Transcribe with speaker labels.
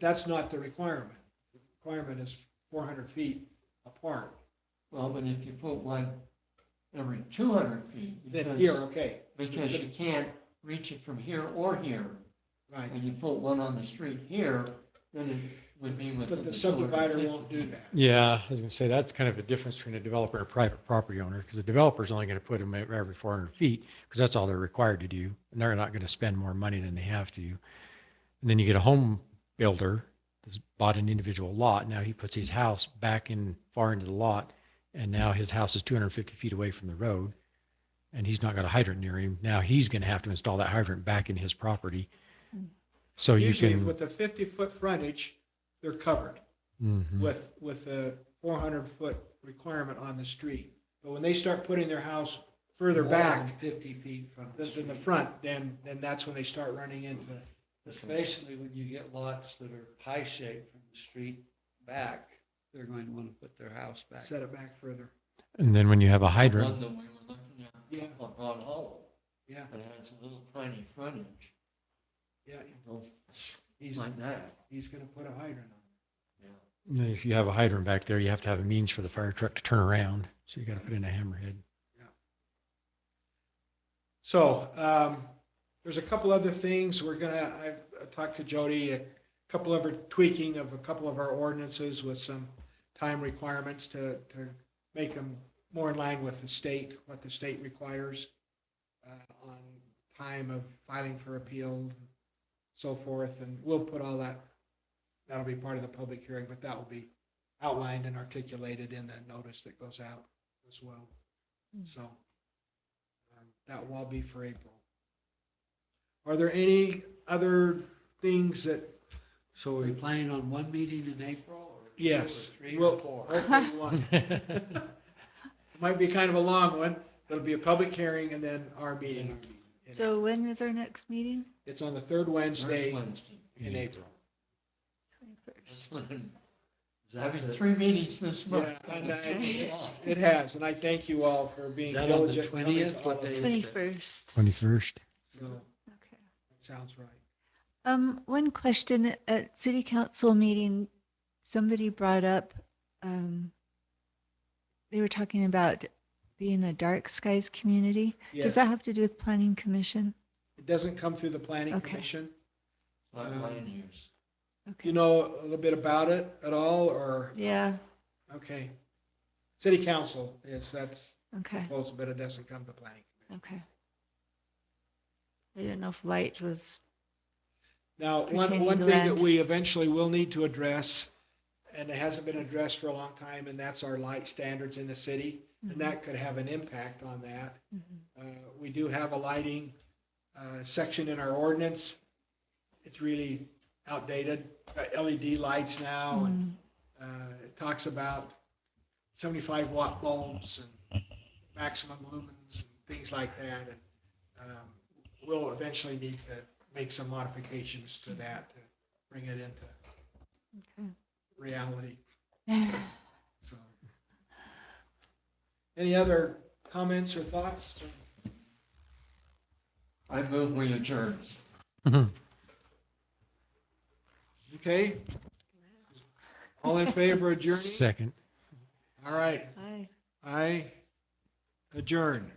Speaker 1: that's not the requirement. The Requirement is four hundred feet apart.
Speaker 2: Well, but if you put one every two hundred feet,
Speaker 1: Then here,
Speaker 2: because,
Speaker 1: okay,
Speaker 2: because you can't reach it from here or here,
Speaker 1: right.
Speaker 2: and you put one on the street here, then it would be within.
Speaker 1: But the
Speaker 2: 250.
Speaker 1: subdivider won't do that.
Speaker 3: Yeah, I was going to say, that's kind of a difference between a developer and a private property owner, because the developer's only going to put them every 400 feet, because that's all they're required to do, and they're not going to spend more money than they have to. And then you get a home builder that's bought an individual lot, now he puts his house back in, far into the lot, and now his house is 250 feet away from the road, and he's not got a hydrant near him, now he's going to have to install that hydrant back in his property. So you
Speaker 1: Usually
Speaker 3: can,
Speaker 1: with the fifty-foot frontage, they're covered
Speaker 3: Mhm.
Speaker 1: with, with the four hundred foot requirement on the street. But when they start putting their house further
Speaker 2: More than
Speaker 1: back,
Speaker 2: Fifty feet from. the
Speaker 1: this in the
Speaker 2: street.
Speaker 1: front, then, then that's when they start running into,
Speaker 4: It's basically when you get lots that are pie shaped from the street back, they're going to want to put their house back.
Speaker 1: set it back further.
Speaker 3: and then when you have a hydrant.
Speaker 2: One that we were looking
Speaker 1: Yeah.
Speaker 2: at up on Hollow,
Speaker 1: Yeah,
Speaker 2: it has a little tiny frontage,
Speaker 1: yeah,
Speaker 2: goes
Speaker 1: he's,
Speaker 2: like that,
Speaker 1: he's gonna put a hydrant on.
Speaker 2: yeah.
Speaker 3: And then if you have a hydrant back there, you have to have a means for the fire truck to turn around. So you got to put in a hammerhead.
Speaker 1: So, um, there's a couple other things we're gonna, I've I talked to Jody, a couple of her tweaking of a couple of our ordinances with some time requirements to, to make them more in line with the state, what the state requires uh, on time of filing for appeal, so forth, and we'll put all that, that'll be part of the public hearing, but that will be outlined and articulated in the notice that goes out as well. So um, that will all be for April. Are there any other things that,
Speaker 4: So are you planning on one meeting in April or? two or
Speaker 1: yes,
Speaker 4: Three
Speaker 1: well,
Speaker 4: or four?
Speaker 1: hopefully one. It Might be kind of a long one, but it'll be a public hearing and then our meeting.
Speaker 5: So when is our next meeting?
Speaker 1: It's on the third
Speaker 2: First
Speaker 1: Wednesday
Speaker 2: Wednesday.
Speaker 1: in April.
Speaker 2: That's when-
Speaker 4: Is that
Speaker 2: Having
Speaker 4: the-
Speaker 2: three meetings this
Speaker 1: Yeah,
Speaker 2: month.
Speaker 1: and I- it's- It has, and I thank you all for
Speaker 4: Is
Speaker 1: being
Speaker 4: that on the
Speaker 1: diligent. coming to
Speaker 4: 20th?
Speaker 1: all
Speaker 4: What
Speaker 1: of
Speaker 4: day
Speaker 1: us.
Speaker 4: is that?
Speaker 5: 21st.
Speaker 3: 21st.
Speaker 1: No,
Speaker 5: Okay.
Speaker 1: Sounds right.
Speaker 5: Um, one question at city council meeting, somebody brought up, um, they were talking about being a dark skies community. Does
Speaker 1: Yeah.
Speaker 5: that have to do with planning commission?
Speaker 1: It doesn't come through the planning
Speaker 5: Okay.
Speaker 1: commission.
Speaker 2: Like land use.
Speaker 1: You
Speaker 5: Okay.
Speaker 1: know a little bit about it at all, or,
Speaker 5: Yeah,
Speaker 1: okay. City council is, that's
Speaker 5: okay,
Speaker 1: proposed, but it doesn't come to planning.
Speaker 5: okay. I didn't know if light was,
Speaker 1: Now, one,
Speaker 5: Pertaining
Speaker 1: one
Speaker 5: to
Speaker 1: thing that
Speaker 5: land.
Speaker 1: we eventually will need to address, and it hasn't been addressed for a long time, and that's our light standards in the city. And that could have an impact on that.
Speaker 5: Mhm.
Speaker 1: Uh, We do have a lighting uh, section in our ordinance. It's really outdated, Uh, LED lights now, and
Speaker 5: Mm,
Speaker 1: uh, it talks about 75 watt bulbs and maximum lumens and things like that. And um, We'll eventually need to make some modifications to that to bring it into reality.
Speaker 5: okay.
Speaker 1: So, any other comments or thoughts?
Speaker 2: I move we adjourn.
Speaker 1: Okay. All in favor of adjourning?
Speaker 3: Second.
Speaker 1: All right,
Speaker 5: Hi.
Speaker 1: I adjourn.